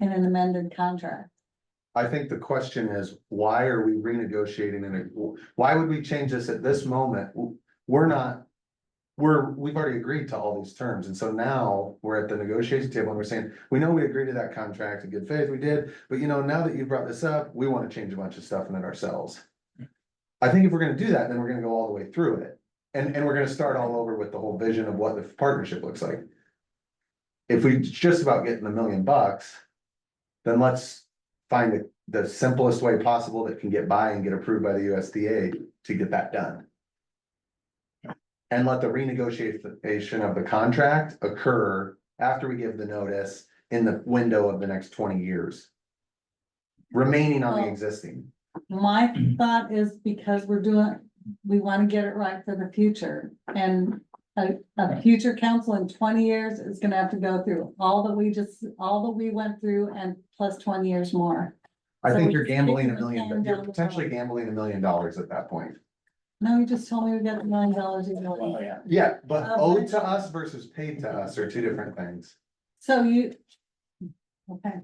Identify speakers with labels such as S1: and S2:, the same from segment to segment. S1: in an amended contract.
S2: I think the question is, why are we renegotiating in a, why would we change this at this moment? We're not. We're, we've already agreed to all these terms, and so now we're at the negotiation table and we're saying, we know we agreed to that contract in good faith, we did. But you know, now that you brought this up, we wanna change a bunch of stuff in it ourselves. I think if we're gonna do that, then we're gonna go all the way through it. And, and we're gonna start all over with the whole vision of what the partnership looks like. If we just about getting a million bucks. Then let's find the, the simplest way possible that can get by and get approved by the USDA to get that done. And let the renegotiation of the contract occur after we give the notice in the window of the next twenty years. Remaining on the
S1: Well-
S2: existing,
S1: My thought is because we're doing, we wanna get it right for the future. And a, a future council in twenty years is gonna have to go through all that we just, all that we went through and plus twenty years more.
S2: I
S1: So
S2: think
S1: we
S2: you're
S1: just kick
S2: gambling a
S1: the can
S2: million, but
S1: down
S2: you're
S1: the
S2: potentially
S1: road.
S2: gambling a million dollars at that point.
S1: No, you just told me we got a million dollars. in money.
S3: Well, Oh, yeah,
S2: Yeah, but
S1: Uh,
S2: owed
S1: but-
S2: to us versus paid to us are two different things.
S1: So you. Okay,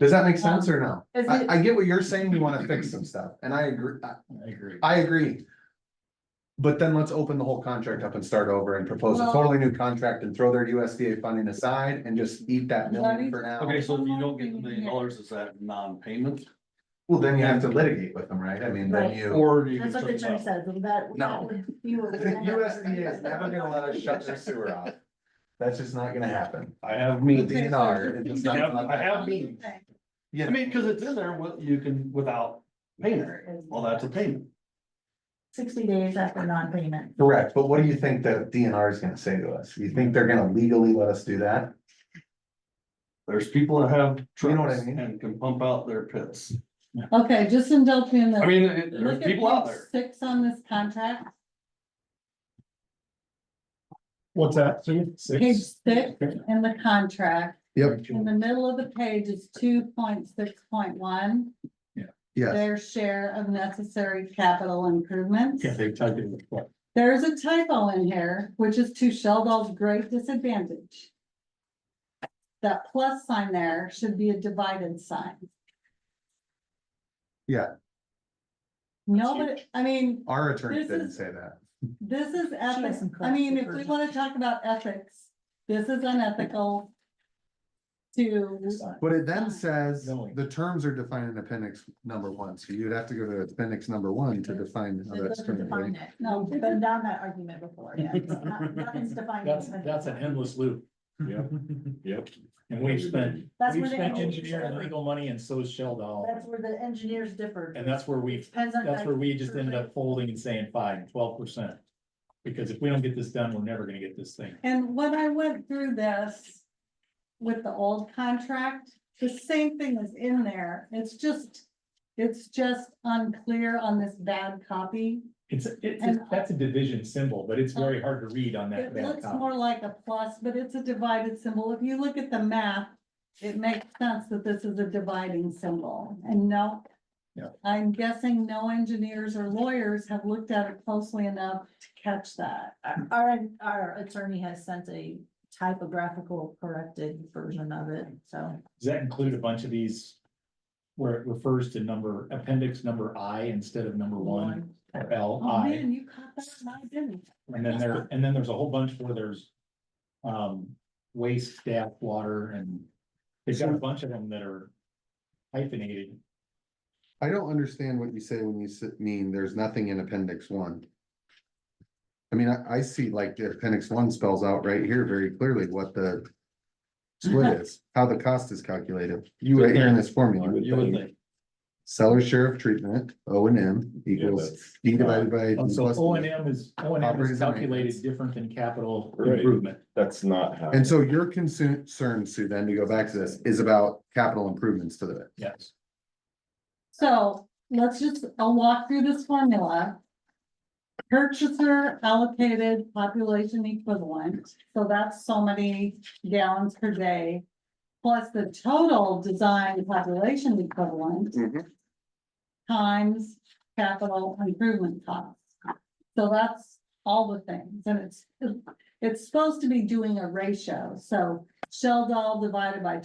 S2: Does that make sense or
S1: Um,
S2: no?
S4: Is
S2: I,
S4: it,
S2: I get what you're saying, you wanna fix some stuff, and I agree, I-
S3: I agree.
S2: I agree. But then let's open the whole contract up and start over and propose a
S1: Well-
S2: totally new contract and throw their USDA funding aside and just eat that million for now.
S3: Okay, so if you don't get the million dollars, is that non-payment?
S2: Well, then you have to litigate with them, right? I mean, then you.
S3: Or do you?
S4: that's what the attorney says, and that.
S2: No.
S4: that would- you would
S2: The
S4: never-
S2: USDA is never gonna let us shut their sewer off. That's just not gonna happen.
S3: I have
S2: The
S3: me.
S1: Okay.
S2: DNR. it's just not
S3: Yep,
S2: gonna let
S3: I
S2: that
S3: have
S2: happen.
S3: me.
S1: okay,
S3: I mean, cause it's in there, what you can, without payment, well, that's a payment.
S4: Sixty days after non-payment.
S2: Correct, but what do you think the DNR is gonna say to us? You think they're gonna legally let us do that?
S3: There's people that have
S2: You know what I
S3: trucks
S2: mean?
S3: and can pump out their pits.
S1: Okay, just indulge me in the.
S3: I mean, it-
S1: Look
S3: there's
S1: at
S3: people out
S1: page
S3: there.
S1: Six on this contract,
S5: What's that, Sue?
S1: page six in the contract,
S2: Yep,
S1: in the middle of the page is two point six point one. Their share of necessary capital improvements.
S5: they typed in the what?
S1: There is a typo in here, which is to Sheldon's great disadvantage. That plus sign there should be a divided sign.
S2: Yeah.
S1: No, but, I mean,
S2: Our attorney
S1: This
S2: didn't
S1: is-
S2: say that.
S1: this is
S4: has
S1: ethics,
S4: some
S1: I mean, if we
S4: corrective
S1: wanna talk about ethics, this is unethical. To,
S2: But it then says,
S5: Knowing.
S2: the terms are defined in appendix number one, so you'd have to go to appendix number one to define. how
S4: It
S2: that's
S4: doesn't
S2: termed,
S4: define
S2: right?
S4: it.
S1: No,
S4: We've been down that argument before, yeah. It's not- Nothing's defined.
S5: That's, that's an endless loop. Yep, yep. And we've spent,
S4: That's
S5: we've
S4: where the
S5: spent
S4: engineers,
S5: engineering
S4: differ.
S5: legal money and so's Shell Doll.
S4: that's where the engineers differ.
S5: And that's where we've,
S4: Depends on.
S5: that's where we just ended up folding and saying fine, twelve percent. Because if we don't get this done, we're never gonna get this thing.
S1: and when I went through this. With the old contract, the same thing is in there, it's just, it's just unclear on this bad copy.
S5: It's, it's,
S1: And- Oh.
S5: that's a division symbol, but it's very hard to read on that.
S1: It
S5: back
S1: looks
S5: copy.
S1: more like a plus, but it's a divided symbol, if you look at the map, it makes sense that this is a dividing symbol, and no.
S5: Yeah.
S1: I'm guessing no engineers or lawyers have looked at it closely enough to catch that.
S4: Our- uh, Our, our attorney has sent a typographical corrected version of it, so.
S5: Does that include a bunch of these? Where it refers to number, appendix number I instead of number one, or L
S1: Oh,
S5: I,
S1: man, you caught that, and I didn't.
S5: and then there, and then there's a whole bunch where there's. Um, waste, staff, water, and they've got a bunch of them that are hyphenated.
S2: I don't understand what you say when you s- mean there's nothing in appendix one. I mean, I, I see like the appendix one spells out right here very clearly what the. Split is, how the cost is calculated,
S5: You
S2: right here in this formula.
S5: You would think.
S2: Seller share of treatment, O and M equals D divided by.
S5: Oh, So
S2: plus
S5: O and M is, O and M
S2: Operating
S5: is
S2: and
S5: calculated
S2: maintenance.
S5: different than capital
S6: Right.
S5: improvement.
S6: That's not how.
S2: And so your concern, Sue, then to go back to this, is about capital improvements to the,
S5: Yes.
S1: So let's just, I'll walk through this formula. Purchaser allocated population equivalent, so that's so many gallons per day. Plus the total design population equivalent times capital improvement costs. So that's all the things, and it's, it's supposed to be doing a ratio, so Shell doll divided by